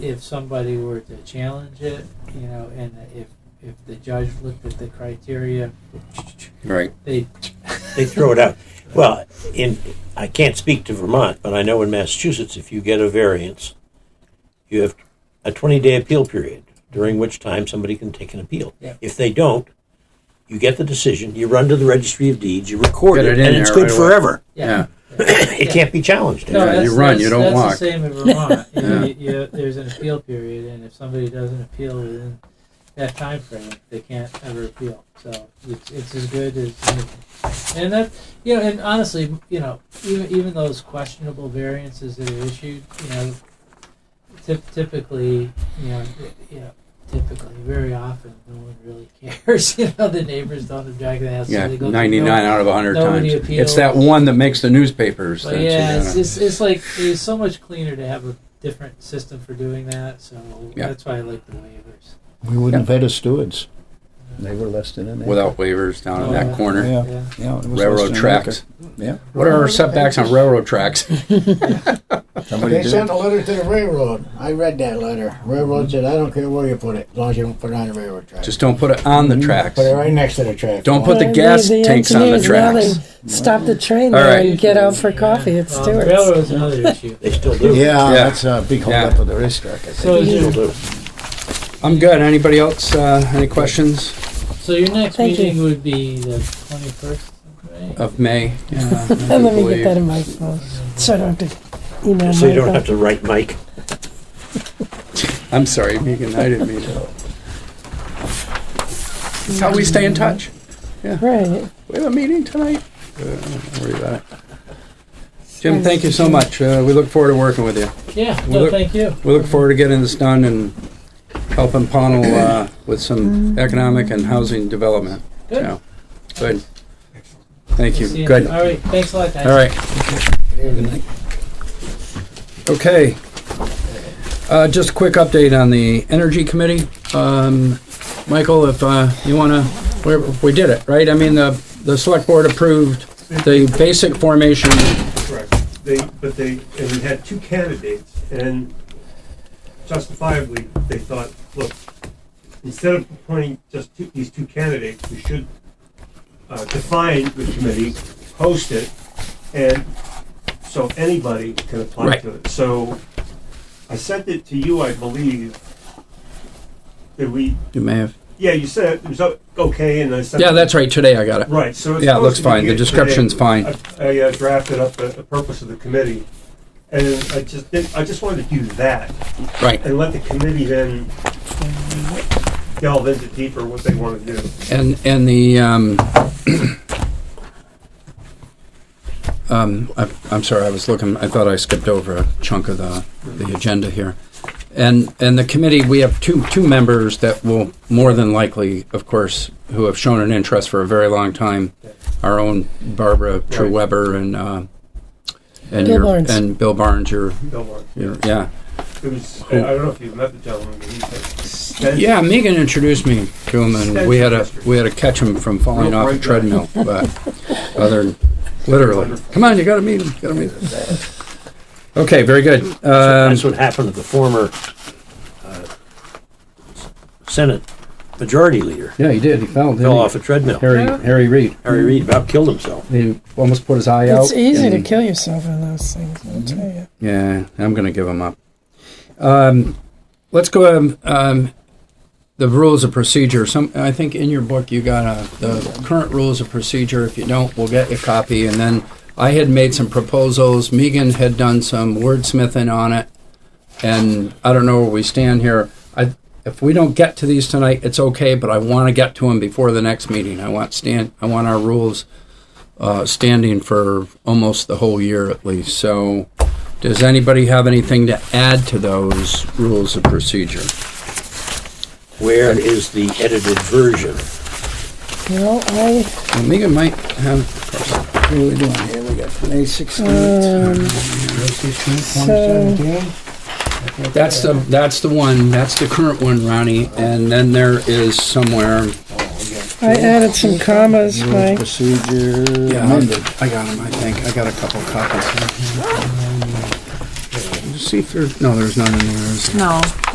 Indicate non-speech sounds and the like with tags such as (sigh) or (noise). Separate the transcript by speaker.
Speaker 1: if somebody were to challenge it, you know, and if, if the judge looked at the criteria,
Speaker 2: Right.
Speaker 1: they.
Speaker 3: They throw it out. Well, in I can't speak to Vermont, but I know in Massachusetts, if you get a variance, you have a 20-day appeal period during which time somebody can take an appeal.
Speaker 1: Yeah.
Speaker 3: If they don't, you get the decision, you run to the registry of deeds, you record
Speaker 2: Get
Speaker 3: it,
Speaker 2: it in
Speaker 3: and it's
Speaker 2: there
Speaker 3: good
Speaker 2: right away.
Speaker 1: (coughs)
Speaker 3: forever.
Speaker 2: Yeah.
Speaker 3: it can't be challenged.
Speaker 1: No,
Speaker 2: Yeah,
Speaker 1: that's,
Speaker 2: you run, you
Speaker 1: that's-
Speaker 2: don't
Speaker 1: that's
Speaker 2: walk.
Speaker 1: the
Speaker 2: (laughs)
Speaker 1: same in Vermont. You know,
Speaker 2: Yeah.
Speaker 1: you, you, there's an appeal period, and if somebody doesn't appeal within that time frame, they can't ever appeal. So it's, it's as good as anything. And that, you know, and honestly, you know, even even those questionable variances that are issued, you know, typ- typically, you know, you know, typically, very often, no one really (laughs) cares. you know, the neighbors don't object, and that's
Speaker 2: Yeah.
Speaker 1: so they go through no-
Speaker 2: 99 out of 100
Speaker 1: nobody
Speaker 2: times.
Speaker 1: appeals.
Speaker 2: It's that one that makes the newspapers.
Speaker 1: But
Speaker 2: that's,
Speaker 1: yeah,
Speaker 2: you
Speaker 1: it's,
Speaker 2: know.
Speaker 1: it's, it's like it's so much cleaner to have a different system for doing that. So
Speaker 2: Yeah.
Speaker 1: that's why I like the waivers.
Speaker 4: We wouldn't have had a Stewart's. They were less than an acre.
Speaker 2: Without waivers down in
Speaker 1: Oh,
Speaker 2: that
Speaker 1: yeah.
Speaker 2: corner.
Speaker 4: Yeah.
Speaker 1: Yeah.
Speaker 4: Yeah, it was less than
Speaker 2: Railroad
Speaker 4: an
Speaker 2: tracks.
Speaker 4: acre. Yeah.
Speaker 2: What are our setbacks on railroad tracks?
Speaker 4: Somebody
Speaker 5: They
Speaker 4: did.
Speaker 5: sent a letter to the railroad. I read that letter. Railroad said, I don't care where you put it, as long as you don't put it on the railroad track.
Speaker 2: Just don't put it on the tracks.
Speaker 5: Put it right next to the track.
Speaker 2: Don't put the
Speaker 6: Well,
Speaker 2: gas
Speaker 6: the
Speaker 2: tanks on the
Speaker 6: engineers, now
Speaker 2: tracks.
Speaker 6: they Stop the train
Speaker 2: All
Speaker 6: there
Speaker 2: right.
Speaker 6: and get out for coffee at
Speaker 3: Uh,
Speaker 1: Um,
Speaker 6: Stewart's.
Speaker 1: railroad's
Speaker 2: (laughs)
Speaker 1: another issue.
Speaker 3: They still do.
Speaker 4: Yeah,
Speaker 2: Yeah.
Speaker 4: that's a big
Speaker 2: Yeah.
Speaker 4: holdup of the racetrack, I think.
Speaker 1: So, is
Speaker 3: Still
Speaker 1: your,
Speaker 3: do.
Speaker 2: I'm good. Anybody else? Uh, any questions
Speaker 1: so your next
Speaker 6: Thank you.
Speaker 1: meeting would be the twenty first, right?
Speaker 2: of May? Uh, I
Speaker 6: And let me
Speaker 2: believe.
Speaker 6: get that in my phone, so I don't have to email
Speaker 3: So you don't have
Speaker 6: Michael.
Speaker 3: to write Mike.
Speaker 2: I'm sorry, Megan. I didn't mean to. That's how we stay in touch.
Speaker 6: Right.
Speaker 2: We have a meeting tonight. Uh, don't worry about it. Jim, thank you so much. Uh, we look forward to working with you.
Speaker 1: Yeah.
Speaker 2: We
Speaker 1: No,
Speaker 2: look-
Speaker 1: thank you.
Speaker 2: We look forward to getting this done and helping Pownell uh, with some economic and housing development.
Speaker 1: Good.
Speaker 2: So, good. Thank
Speaker 1: See
Speaker 2: you.
Speaker 1: you.
Speaker 2: Good.
Speaker 1: All right. Thanks a lot, guys.
Speaker 2: All right. Okay. Uh, just a quick update on the Energy Committee. Um, Michael, if uh, you want to, we, we did it, right? I mean, the, the Select Board approved the basic formation.
Speaker 7: Correct. They, but they, and we had two candidates, and justifiably, they thought, look, instead of appointing just two, these two candidates, we should uh, define the committee, host it, and so anybody can apply
Speaker 2: Right.
Speaker 7: to it. So I sent it to you, I believe. Did we?
Speaker 2: You may have.
Speaker 7: Yeah, you said it was o- okay, and I sent.
Speaker 2: Yeah, that's right. Today I got it.
Speaker 7: Right, so it's
Speaker 2: Yeah, it
Speaker 7: supposed
Speaker 2: looks
Speaker 7: to be
Speaker 2: fine. The
Speaker 7: good today.
Speaker 2: description's fine.
Speaker 7: I I, uh, drafted up the, the purpose of the committee, and I just did, I just wanted to do that
Speaker 2: Right.
Speaker 7: and let the committee then delve into deeper what they want to do.
Speaker 2: And, and the, um, (clears throat) um, I, I'm sorry, I was looking, I thought I skipped over a chunk of the, the agenda here. And, and the committee, we have two, two members that will more than likely, of course, who have shown an interest for a very long time. Our own Barbara Trueweber and, uh, and
Speaker 6: Bill
Speaker 2: your,
Speaker 6: Barnes.
Speaker 2: and Bill Barnes, your,
Speaker 7: Don't worry.
Speaker 2: your, yeah.
Speaker 7: It was, I I don't know if you've met the gentleman, but he's extensive.
Speaker 2: Yeah, Megan introduced me to him, and we had a we had to catch him from falling
Speaker 7: Real
Speaker 2: off a
Speaker 7: bright guy.
Speaker 2: treadmill. But other, than literally, come on, you got to meet him. You got to meet him. Okay, very good. Um,
Speaker 3: That's what happened to the former uh, Senate Majority Leader.
Speaker 2: yeah, he did. He fell. didn't
Speaker 3: Fell
Speaker 2: he?
Speaker 3: off a treadmill.
Speaker 2: Harry Harry Reid.
Speaker 3: Harry Reid about killed himself.
Speaker 2: He almost put his eye out.
Speaker 6: It's easy
Speaker 2: and-
Speaker 6: to
Speaker 2: Mm-hmm.
Speaker 6: kill yourself in those things, I'll tell you.
Speaker 2: Yeah, I'm going to give him up. Um, let's go. Um, um, the rules of procedure. Some, I think, in your book, you got a, the current rules of procedure. If you don't, we'll get you a copy. And then I had made some proposals. Megan had done some wordsmithing on it, and I don't know where we stand here. I, if we don't get to these tonight, it's okay. But I want to get to them before the next meeting. I want stand. I want our rules uh, standing for almost the whole year at least. So. Does anybody have anything to add to those rules of procedure?
Speaker 3: Where is the edited version?
Speaker 6: Well, I,
Speaker 2: Well, Megan might have.
Speaker 4: What are we doing here? We got May
Speaker 2: Uh,
Speaker 4: sixteenth.
Speaker 6: um, so,
Speaker 2: That's the that's the one. That's the current one, Ronnie. And then there is somewhere.
Speaker 6: I added some commas, Mike.
Speaker 4: Procedure
Speaker 2: Yeah,
Speaker 4: amended.
Speaker 2: I got them. I think I got a couple copies. Here. see if there's, no, there's none in there. is there?
Speaker 8: No.